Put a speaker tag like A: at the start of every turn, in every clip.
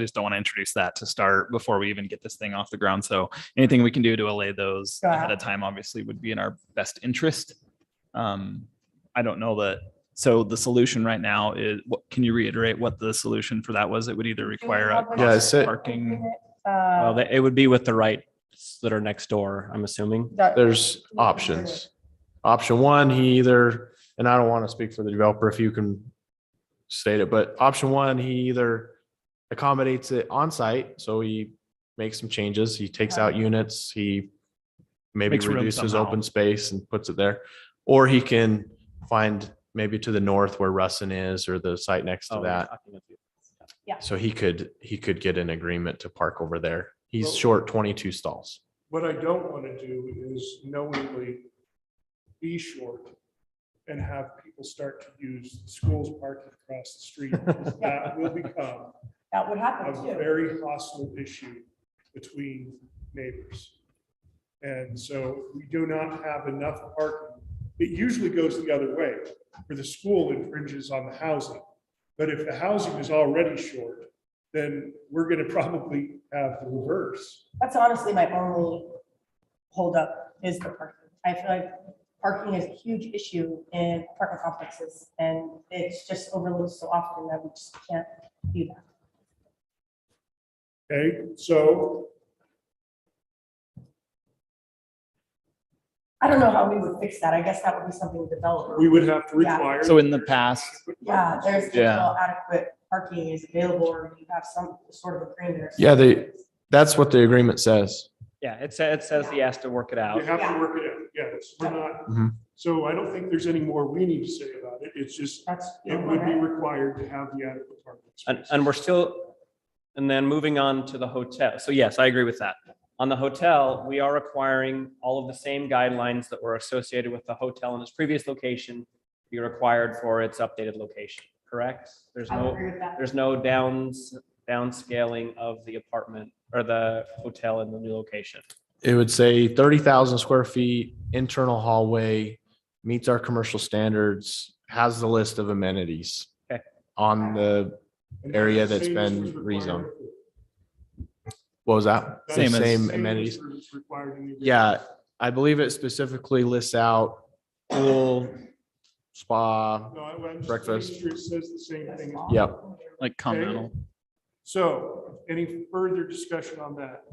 A: just don't want to introduce that to start before we even get this thing off the ground. So anything we can do to allay those
B: Yeah.
A: ahead of time, obviously, would be in our best interest. Um, I don't know that. So the solution right now is, what, can you reiterate what the solution for that was? It would either require a
C: Yeah, it's a-
A: parking.
B: Uh,
D: Well, they- it would be with the rights that are next door, I'm assuming.
B: that-
C: There's options. Option one, he either, and I don't want to speak for the developer if you can state it, but option one, he either accommodates it on site, so he makes some changes, he takes out units, he maybe
A: Makes room
C: reduces
A: somehow.
C: open space and puts it there, or he can find maybe to the north where Russin is or the site next to
D: Oh,
C: that.
D: I think that's-
C: So he could, he could get an agreement to park over there. He's short twenty-two stalls.
E: What I don't want to do is knowingly be short and have people start to use schools parking across the street. That will become
B: That would
E: a
B: happen too.
E: very hostile issue between neighbors. And so we do not have enough parking. It usually goes the other way, where the school infringes on the housing. But if the housing is already short, then we're going to probably have the reverse.
B: That's honestly my only holdup is the parking. I feel like parking is a huge issue in apartment complexes and it's just overlooked so often that we just can't do that.
E: Okay, so
B: I don't know how we would fix that. I guess that would be something developed.
E: we would have to
B: Yeah.
E: require.
A: So in the past,
B: Yeah, there's
A: Yeah.
B: no adequate parking is available or you have some sort of agreement. or
C: Yeah, they-
B: something.
C: That's what the agreement says.
D: Yeah, it says, it says he has to work it
E: You
D: out.
E: have to work it out, yeah, it's, we're not,
C: Mhm.
E: so I don't think there's any more we need to say about it, it's just,
B: That's.
E: it would be required to have the adequate parking.
D: And,
E: space.
D: and we're still, and then moving on to the hotel. So yes, I agree with that. On the hotel, we are requiring all of the same guidelines that were associated with the hotel in its previous location. Be required for its updated location, correct? There's
B: I
D: no,
B: agree with that.
D: there's no downs, downscaling of the apartment or the hotel in the new location.
C: It would say thirty thousand square feet, internal hallway, meets our commercial standards, has the list of amenities.
D: Okay.
C: On the,
E: And
C: area
E: the
C: that's
E: same
C: been
E: is required-
C: rezoned. what was that? The
E: that's
A: Same as-
E: the
C: Same
E: as
C: amenities.
E: what's required in the-
C: Yeah, I believe it specifically lists out pool, spa.
E: No, I- I'm just making
C: Breakfast.
E: sure It says the same thing. as-
C: Yep.
A: like continental,
E: So, any further discussion on that?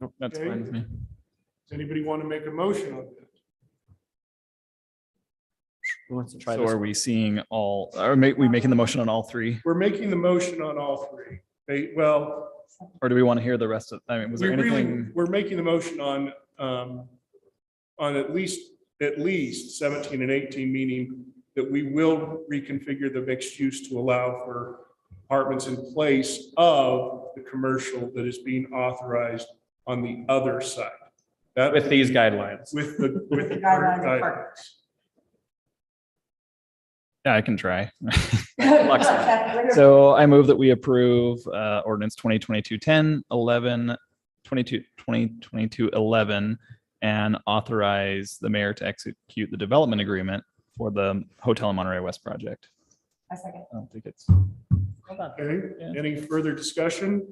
A: Nope, that's fine with me.
E: Does anybody want to make a motion on that?
D: Who wants to try
A: So
D: this?
A: are we seeing all, are ma- we making the motion on all three?
E: We're making the motion on all three, They- well,
A: Or do we want to hear the rest of, I mean, was
E: We
A: there
E: really,
A: anything?
E: we're making the motion on, um, on at least, at least seventeen and eighteen, meaning that we will reconfigure the mixed use to allow for apartments in place of the commercial that is being authorized on the other side. That
D: With these guidelines.
E: With the, with the
B: The guidelines
E: current
B: of
E: guide.
B: parks.
A: Yeah, I can try.
B: Flexible.
A: So I move that we approve uh, ordinance 2022 10, 11, 22, 2022 11, and authorize the mayor to execute the development agreement for the Hotel in Monterey West project.
B: I second.
A: I don't think it's,
B: Hold on.
E: Okay,
A: Yeah.
E: any further discussion?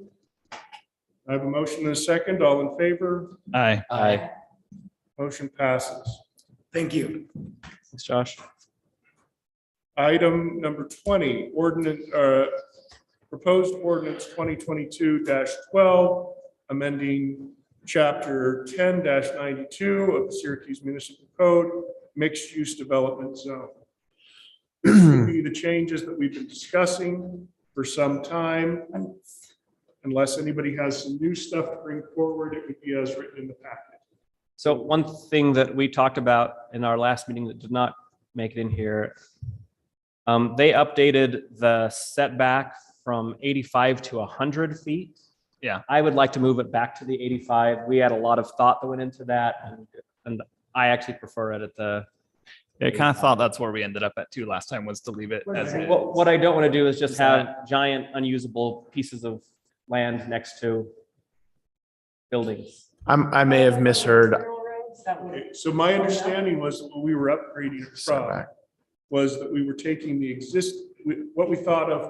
E: I have a motion and a second. All in favor?
A: aye.
C: Aye.
E: Motion passes.
F: Thank you.
D: Thanks, Josh.
E: Item number twenty, ordinance, uh, proposed ordinance twenty twenty-two twelve, amending chapter ten ninety-two of the Syracuse Municipal Code, mixed-use development zone. This would be the changes that we've been discussing for some time. Unless anybody has some new stuff to bring forward, it would be as written in the packet.
D: So one thing that we talked about in our last meeting that did not make it in here, um, they updated the setback from eighty-five to hundred feet.
A: Yeah.
D: I would like to move it back to the eighty-five. We had a lot of thought that went into that and, and I actually prefer it at the,
A: I kind of thought that's where we ended up at too last time was to leave it as it is.
D: what, what I don't want to do is just
A: Is that-
D: have giant unusable pieces of land next to buildings.
C: I'm, I may have misheard.
B: Railroads, that would-
E: Okay, So my understanding was that when we were upgrading it from
C: Setback.
E: was that we were taking the exist, we- what we thought of